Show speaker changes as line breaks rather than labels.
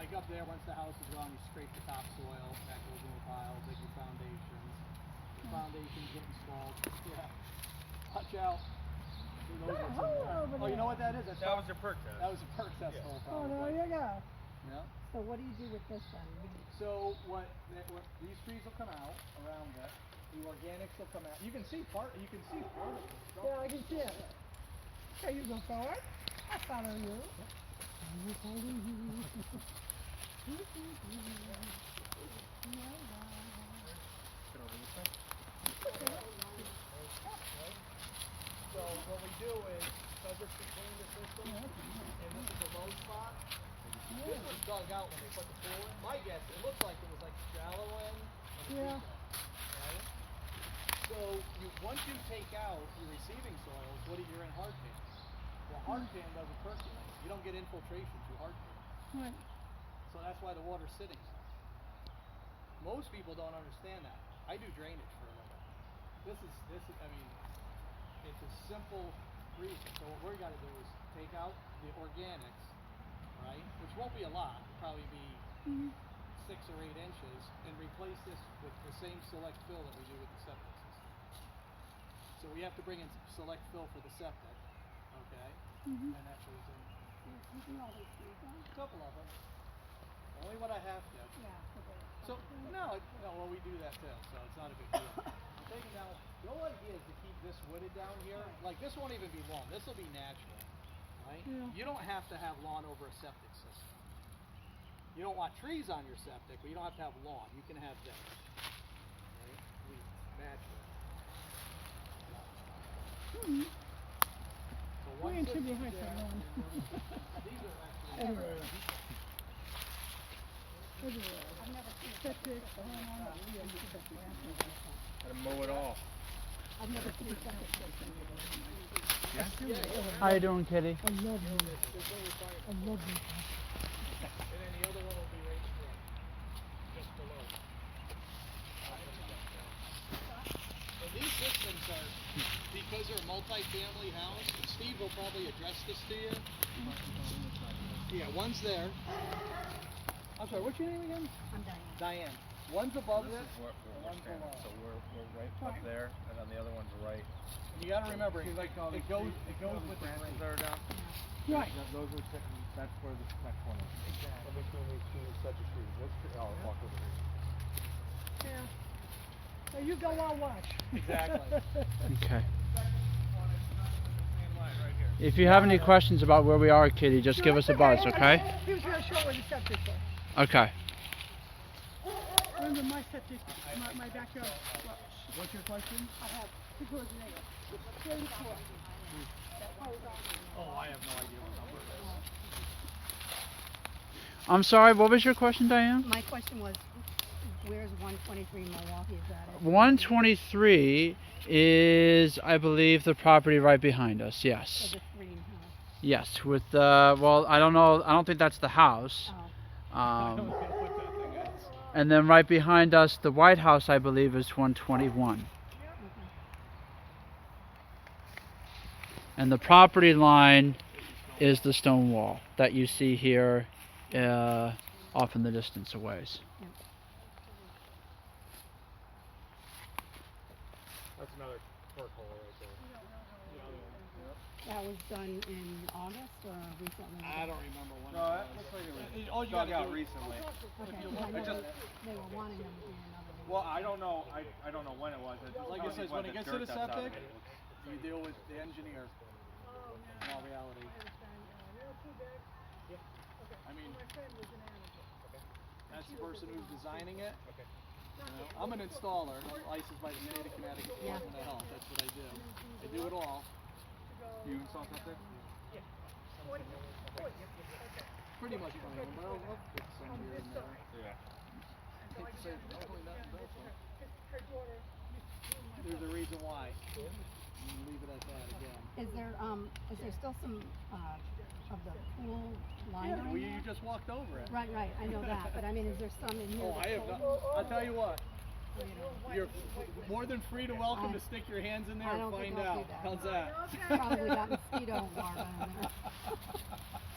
dig up there, once the house is gone, we scrape the topsoil, that goes in the pile, dig your foundations. The
Hmm.
foundations get installed, yeah. Watch out. Who knows
That
what's in
hole
there.
over
Oh, you
there.
know what that is? That's
That was
fal-
a perk test.
That was a perk test
Yeah.
hole.
Oh,
probably.
there you go.
Yeah.
So what do you do with this one? You-
So what, that- what, these trees will come out around that, the organics will come out, you can see part, you can see part of it.
Yeah, I can see it. Okay, you go forward. I follow you. I follow you.
So what we do is, so just to clean the system, and this is a low spot. This was dug out when they put the pool in. My guess, it looked like it was like a shallow end. and a deep
Yeah.
end, right? So you, once you take out your receiving soils, what are you in hard pan? Well, hard pan doesn't percolate. You don't get infiltration through hard pan.
Right.
So that's why the water's sitting. Most people don't understand that. I do drainage for a living. This is this is I mean, it's a simple reason. So what we're gotta do is take out the organics, right? Which won't be a lot, it'll probably be six or eight inches, and replace this with the same select fill that we do with the septic system. So we have to bring in s- select fill for the septic, okay?
Mhm.
And that goes in a couple of them. Only what I have to. So, no, it- no, well, we do that too, so it's not a big deal. I'm thinking now, the whole idea is to keep this wooded down here, like, this won't even be lawn, this'll be natural, right?
Yeah.
You don't have to have lawn over a septic system. You don't want trees on your septic, but you don't have to have lawn, you can have this. Right, weeds, natural. So
We're
one
in
sits
should be high for
there, and
lawn.
then These are actually.
Everywhere. Everywhere. I've never seen septic. oh, no, no, we are used to septic.
Gotta mow it all.
I've never seen septic.
How you doing, Kitty?
I love you. I love you.
And then the other one will be right here, just below. And these systems are, because they're multifamily house, and Steve will probably address this to you. Yeah, one's there. I'm sorry, what's your name again?
I'm dying.
Diane. One's above
This
it,
is where, where we're
One
standing,
below.
so we're, we're right up there, and then the other one's right.
and you gotta remember, it goes, it goes with the
branches
grade.
that are down.
Right.
Those are, that's where the, that corner.
Exactly. oh,
So you go, I'll watch.
Exactly.
Okay.
Same line, right here.
If you have any questions about where we are, Kitty, just give us a buzz, okay?
He was real short with the septic though.
Okay.
Remember my septic, my, my backyard. well,
What's your question?
I have two doors in there. Thirty-four.
Oh, I have no idea what number it is.
I'm sorry, what was your question, Diane?
My question was, where's one twenty-three Milwaukee, is that it?
123 is, I believe, the property right behind us,
Or
yes.
the green house?
Yes, with the, well, I don't know, I don't think that's the house.
Oh,
Um,
What that thing is.
and then right behind us, the White House, I believe, is 121.
okay.
And the property line is the stone wall that you see here uh, off in the distance a ways.
That's another perk hole right there.
That was done in August or recently?
I don't remember when.
No, that
it was.
looks like it was
It- it- all you
dug
gotta
out
do-
recently.
Okay,
you
'cause I
look- it
know
just-
they were wanting them to be another one.
Well, I don't know, I, I don't know when it was. It's
Like it
probably
says, when it
the
gets to
dirt
the
that's out of
septic,
it.
you deal with the engineer. In all reality. I mean, that's the person who's designing it. You know, I'm an installer, and I'm licensed by the state of Connecticut,
Yeah.
Department of Health, that's what I do. I do it all,
You install septic?
pretty much, from the borough, up with some here and there.
Yeah.
Hate to say it, hopefully nothing bad, but There's a reason why. And Leave it at that again.
Is there, um, is there still some, uh, of the pool liner
Well,
in
you you
there?
just walked over it.
Right, right, I know that, but I mean, is there some in here?
Oh, I
that's
have not,
still-
I'll tell you what,
you know,
You're more than free to welcome
I-
to stick your hands in there
I
and
don't
find
think I'll do
out.
that.
How's that?
Probably got mosquito larvae in there.